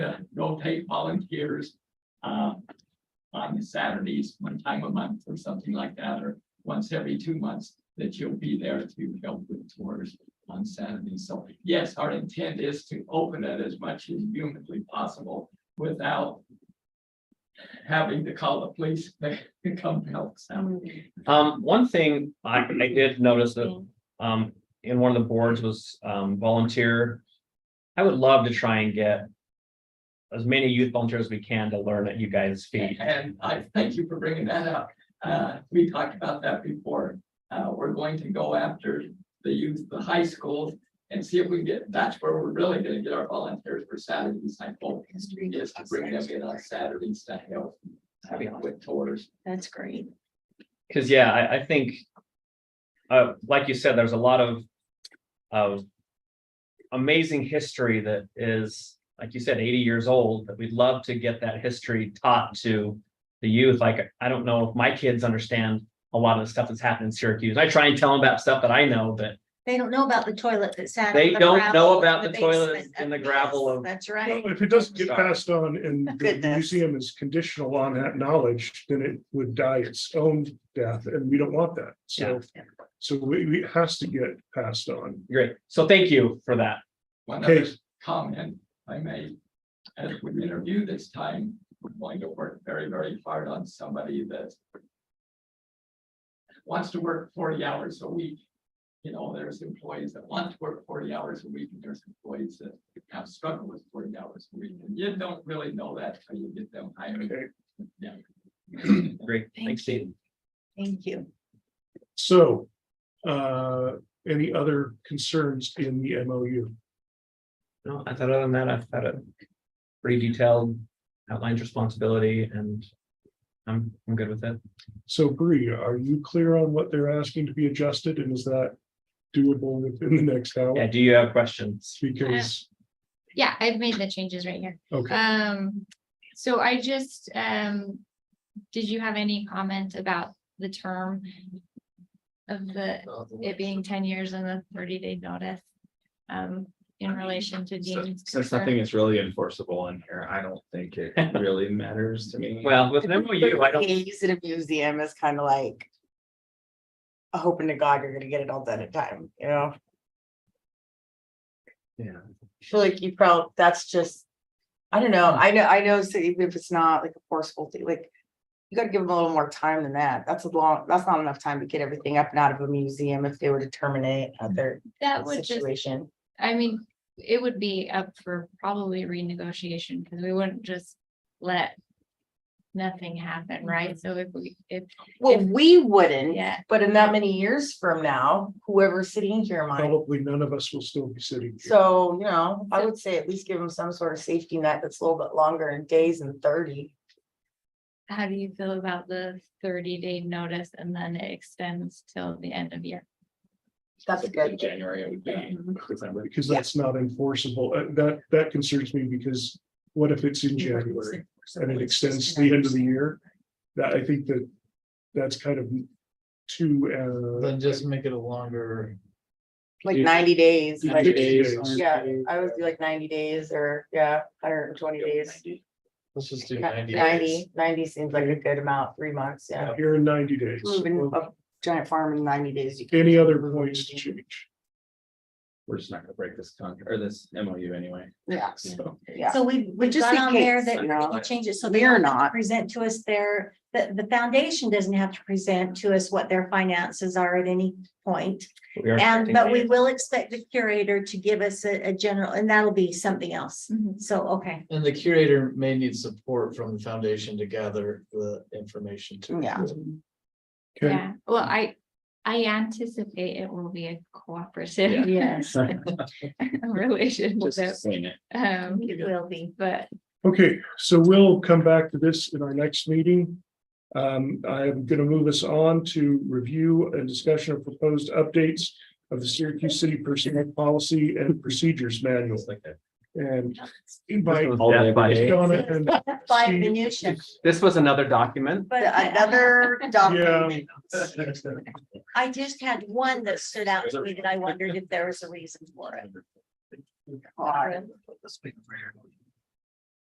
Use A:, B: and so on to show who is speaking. A: rotate volunteers. uh, on Saturdays, one time a month or something like that, or once every two months, that you'll be there to help with tours on Saturday. So yes, our intent is to open it as much as humanly possible without having to call the police to come help us out.
B: Um, one thing I, I did notice that, um, in one of the boards was, um, volunteer. I would love to try and get as many youth volunteers as we can to learn at you guys' feet.
A: And I thank you for bringing that up. Uh, we talked about that before. Uh, we're going to go after the youth, the high schools and see if we can get, that's where we're really gonna get our volunteers for Saturdays. I hope is to bring them in on Saturdays to help
B: That'd be awesome.
A: with tours.
C: That's great.
B: Cause yeah, I, I think. Uh, like you said, there's a lot of, of. Amazing history that is, like you said, eighty years old, that we'd love to get that history taught to. The youth, like, I don't know if my kids understand a lot of the stuff that's happened in Syracuse. I try and tell them about stuff that I know, but.
C: They don't know about the toilet that sat. on
B: They
C: the
B: don't
C: gravel
B: know
C: in
B: about the toilet
C: basement
B: and the
C: of-
B: gravel of-
C: That's
D: Well,
C: right.
D: If it doesn't get
B: Sorry.
D: passed on and the
C: Goodness.
D: museum is conditional on that knowledge, then it would die its own death and we don't want that. So,
C: Yeah.
D: so we, we, it has to get passed on.
B: Great, so thank you for that.
A: One
D: Okay.
A: other comment I made, as we interview this time, we're going to work very, very hard on somebody that wants to work forty hours a week. You know, there's employees that want to work forty hours a week, and there's employees that have struggled with forty hours a week, and you don't really know that till you get them hired.
D: Okay,
A: Yeah.
B: Great,
C: Thank
B: thanks, Steve.
C: Thank you.
D: so, uh, any other concerns in the MOU?
B: No, I thought other than that, I've had a pretty detailed outlined responsibility and I'm, I'm good with it.
D: So Bree, are you clear on what they're asking to be adjusted and is that doable within the next
B: Yeah,
D: hour?
B: do you have questions?
D: Because,
E: Yeah, I've made the changes right here.
D: okay.
E: Um, so I just, um, did you have any comment about the term of the, it being ten years and the thirty day notice? Um, in relation to
F: So-
E: Dean.
F: Since nothing is really enforceable in here, I don't think it really matters to me.
B: Well, with an MOU, I
G: Yeah,
B: don't,
G: You use it in a museum is kind of like. Hoping to God you're gonna get it all done in time, you know?
F: Yeah.
G: I Feel like you probably, that's just. I don't know, I know, I know, so even if it's not like a forceful thing, like. You gotta give them a little more time than that. That's a long, that's not enough time to get everything up and out of a museum if they were to terminate
B: Mm.
G: other
E: That would just,
G: situation.
E: I mean, it would be up for probably renegotiation, because we wouldn't just let nothing happen, right? So if we, if,
G: Well, we wouldn't,
E: yeah,
G: but in that many years from now, whoever's sitting here
C: Uh,
G: might.
D: Probably none of us will still be sitting. here.
G: So, you know, I would say at least give them some sort of safety net that's a little bit longer in days than thirty.
E: how do you feel about the thirty day notice and then it extends till the end of year?
G: That's a
F: In
G: good.
F: January, it would be December.
D: because
G: Yeah.
D: that's not enforceable. Uh, That, that concerns me because what if it's in January and it extends to the end of the year? That, I think that, that's kind of too, uh,
H: Then just make it a longer.
G: Like
B: You-
G: ninety days,
D: you
G: like,
D: think- days.
G: yeah, I would do like ninety days or, yeah, hundred and twenty days.
H: Let's just do ninety. days.
G: Ninety, ninety seems like a good amount, three months, yeah.
D: here in ninety days.
G: Moving a giant farm in ninety days. you can-
D: Any other points to change?
F: We're just not gonna break this contract or this MOU anyway,
G: Yeah,
F: so.
G: yeah.
C: So we, we
G: just
C: got
G: in
C: on there
G: case,
C: that
G: you
C: we're
G: know.
C: gonna change it so they
G: We're
C: don't
G: not,
C: present to us their, the, the foundation doesn't have to present to us what their finances are at any point.
B: we are
C: And,
B: expecting-
C: but we will expect the curator to give us a, a general, and that'll be something else.
E: Mm-hmm.
C: So, okay,
H: And the curator may need support from the foundation to gather the information too.
G: Yeah.
D: Okay,
E: Yeah, well, I, I anticipate it will be a cooperative
C: yes,
F: Just
E: relationship.
F: saying it.
E: Um,
C: it will be.
E: but
D: okay, so we'll come back to this in our next meeting. Um, I'm gonna move us on to review and discussion of proposed updates of the Syracuse City Personnel Policy and Procedures Manual
B: It's like that.
D: and invite
B: This
F: All
B: was
F: day,
B: death by-
F: every day.
D: Donna and
C: By
D: Steve.
C: minutia.
B: This was another document.
C: But I-
G: Another document.
C: I just had one that stood out to me that I wondered if there was a reason for it.
G: God.